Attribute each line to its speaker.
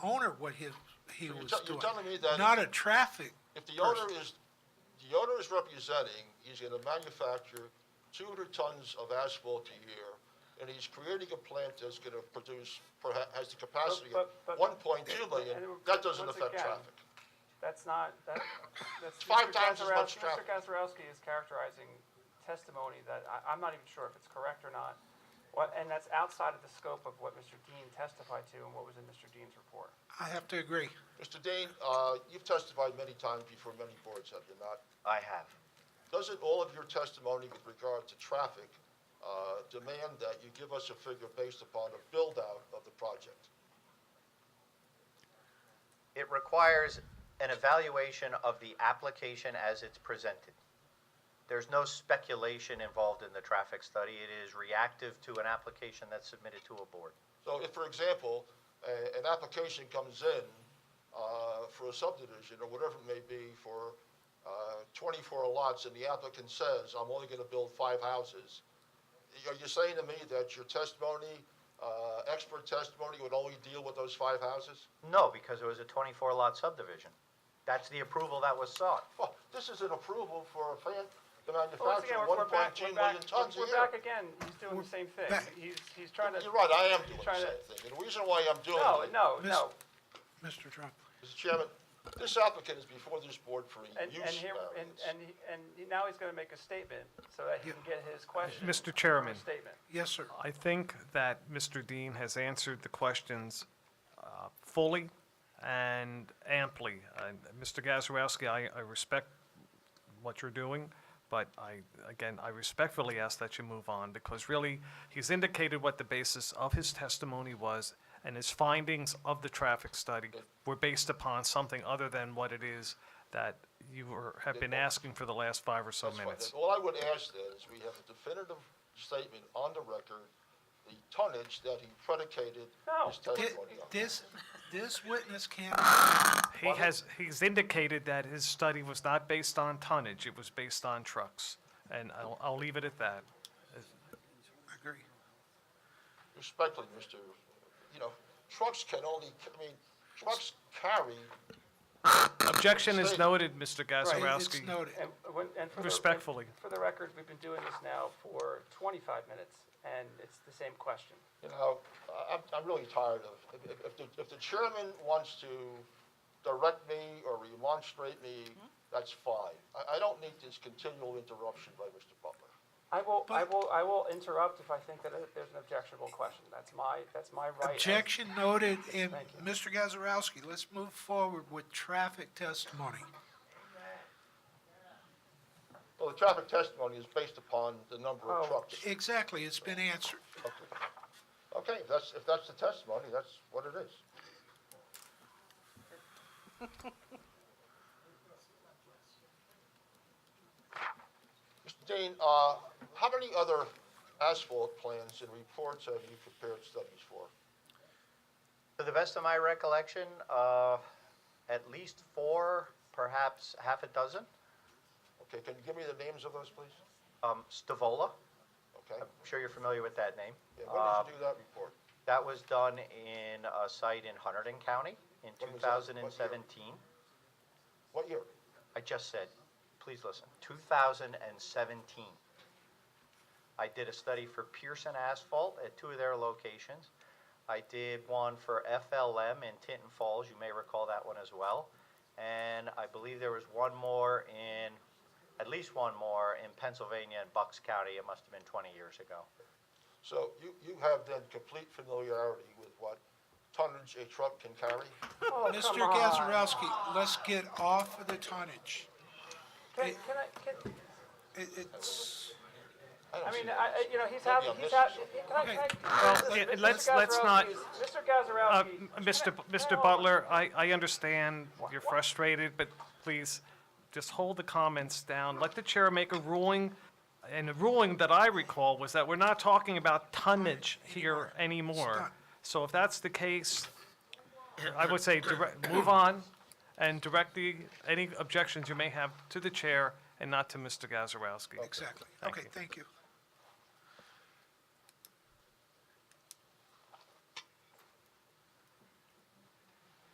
Speaker 1: owner what his, he
Speaker 2: So you're
Speaker 1: was
Speaker 2: tell-
Speaker 1: doing.
Speaker 2: you're telling me that-
Speaker 1: Not a traffic
Speaker 2: If the
Speaker 1: person.
Speaker 2: owner is, the owner is representing, he's gonna manufacture two hundred tons of asphalt a year, and he's creating a plant that's gonna produce, perha- has the capacity of
Speaker 3: But- but-
Speaker 2: one point two
Speaker 3: but-
Speaker 2: million,
Speaker 3: and
Speaker 2: that doesn't
Speaker 3: once
Speaker 2: affect
Speaker 3: again,
Speaker 2: traffic.
Speaker 3: That's not, that, that's.
Speaker 2: five
Speaker 3: Mr.
Speaker 2: times as much
Speaker 3: Gazarovski-
Speaker 2: traffic.
Speaker 3: Mr. Gazarovski is characterizing testimony that, I, I'm not even sure if it's correct or not. What, and that's outside of the scope of what Mr. Dean testified to and what was in Mr. Dean's report.
Speaker 1: I have to agree.
Speaker 2: Mr. Dane, uh, you've testified many times before many boards, have you not?
Speaker 4: I have.
Speaker 2: Doesn't all of your testimony with regard to traffic, uh, demand that you give us a figure based upon a build-out of the project?
Speaker 4: It requires an evaluation of the application as it's presented. There's no speculation involved in the traffic study. It is reactive to an application that's submitted to a board.
Speaker 2: So if, for example, a, an application comes in, uh, for a subdivision or whatever it may be for, uh, twenty-four lots and the applicant says, I'm only gonna build five houses, are you saying to me that your testimony, uh, expert testimony would only deal with those five houses?
Speaker 4: No, because it was a 24-lot subdivision. That's the approval that was sought.
Speaker 2: Well, this is an approval for a plant to
Speaker 3: But Once
Speaker 2: manufacture
Speaker 3: again, we're
Speaker 2: one
Speaker 3: we're
Speaker 2: point
Speaker 3: back,
Speaker 2: two
Speaker 3: we're
Speaker 2: million
Speaker 3: back,
Speaker 2: tons a year.
Speaker 3: we're back again, he's doing the same thing.
Speaker 1: back.
Speaker 3: He's, he's trying to.
Speaker 2: You're right, I am doing the
Speaker 3: he's trying to-
Speaker 2: same thing, and the reason why I'm doing it.
Speaker 3: No, no,
Speaker 1: Miss- Mr.
Speaker 3: no.
Speaker 1: Trump.
Speaker 2: Mr. Chairman, this applicant is before this board for a use
Speaker 3: And,
Speaker 2: variance.
Speaker 3: and here, and, and, he- and he- now he's gonna make a statement so that he can get his question.
Speaker 5: Mr.
Speaker 3: from a
Speaker 5: Chairman.
Speaker 3: Statement.
Speaker 1: Yes, sir.
Speaker 5: I think that Mr. Dean has answered the questions uh, fully and amply. And Mr. Gazarovski, I, I respect what you're doing, but I, again, I respectfully ask that you move on, because really, he's indicated what the basis of his testimony was, and his findings of the traffic study were based upon something other than what it is that you were, have been asking for the last five or so
Speaker 2: That's fine.
Speaker 5: minutes.
Speaker 2: Then All I would ask then is we have a definitive statement on the record, the tonnage that he predicated
Speaker 3: No.
Speaker 2: his testimony on.
Speaker 1: This, this witness can't,
Speaker 5: He has, he's indicated that his study was not based on tonnage, it was based on trucks. And I'll, I'll leave it at that.
Speaker 1: agree.
Speaker 2: Respectfully, Mr., you know, trucks can only, I mean, trucks carry,
Speaker 5: Objection is
Speaker 2: Mistake.
Speaker 5: noted, Mr.
Speaker 1: It-
Speaker 5: Gazarovski.
Speaker 1: It's noted.
Speaker 3: And, when- and for the-
Speaker 5: Respectfully.
Speaker 3: For the record, we've been doing this now for twenty-five minutes, and it's the same question.
Speaker 2: you know, I- I'm, I'm really tired of, if- if, if the, if the chairman wants to direct me or remonstrate me,
Speaker 3: Mm-hmm.
Speaker 2: that's fine. I, I don't need this continual interruption by Mr. Butler.
Speaker 3: I will, I
Speaker 1: But-
Speaker 3: will, I will interrupt if I think that there's an objectionable question. That's my, that's my right. as-
Speaker 1: Objection noted, and
Speaker 3: Thank you.
Speaker 1: Mr. Gazarovski, let's move forward with traffic testimony.
Speaker 2: Well, the traffic testimony is based upon the number
Speaker 3: Oh.
Speaker 2: of trucks.
Speaker 1: Exactly, it's been answered.
Speaker 2: Okay, if that's, if that's the testimony, that's what it is. Mr. Dean, uh, how many other asphalt plans and reports have you prepared studies for?
Speaker 4: To the best of my recollection, uh, at least four, perhaps half a dozen.
Speaker 2: Okay, can you give me the names of those, please?
Speaker 4: Um, Stavola,
Speaker 2: Okay,
Speaker 4: I'm sure you're familiar with that name.
Speaker 2: yeah,
Speaker 4: Uh,
Speaker 2: when did you do that report?
Speaker 4: That was done in a site in Hunterdon County in
Speaker 2: When was that? What year?
Speaker 4: 2017.
Speaker 2: What year?
Speaker 4: I just said, please listen, 2017. I did a study for Pearson Asphalt at two of their locations. I did one for FLM in Tinton Falls, you may recall that one as well. And I believe there was one more in, at least one more in Pennsylvania in Bucks County, it must have been 20 years ago.
Speaker 2: So you, you have then complete familiarity with what tonnage a truck can carry?
Speaker 3: Oh,
Speaker 1: Mr.
Speaker 3: come on.
Speaker 1: Gazarovski, let's get off of the tonnage.
Speaker 3: Can, can I, can,
Speaker 1: It, it's,
Speaker 2: don't
Speaker 3: I
Speaker 2: see
Speaker 3: mean,
Speaker 2: that.
Speaker 3: I, I- you know, he's
Speaker 2: Maybe
Speaker 3: having,
Speaker 2: I'm
Speaker 3: he's
Speaker 2: missing something.
Speaker 3: having, can I, can I?
Speaker 5: Well,
Speaker 3: Mr.
Speaker 5: it- let's- let's not-
Speaker 3: Gazarovski's- Mr.
Speaker 5: Uh,
Speaker 3: Gazarovski.
Speaker 5: m- Mr.
Speaker 3: can
Speaker 5: B-
Speaker 3: I- can I
Speaker 5: Mr.
Speaker 3: hold-
Speaker 5: Butler, I, I understand you're
Speaker 3: Wha- wha-
Speaker 5: frustrated, but please, just hold the comments down. Let the chair make a ruling, and the ruling that I recall was that we're not talking about tonnage here anymore.
Speaker 1: not.
Speaker 5: So if that's the case, I would say direct, move on and direct the, any objections you may have to the chair and not to Mr. Gazarovski.
Speaker 1: exactly.
Speaker 5: Thank
Speaker 1: Okay,
Speaker 5: you.
Speaker 1: thank you.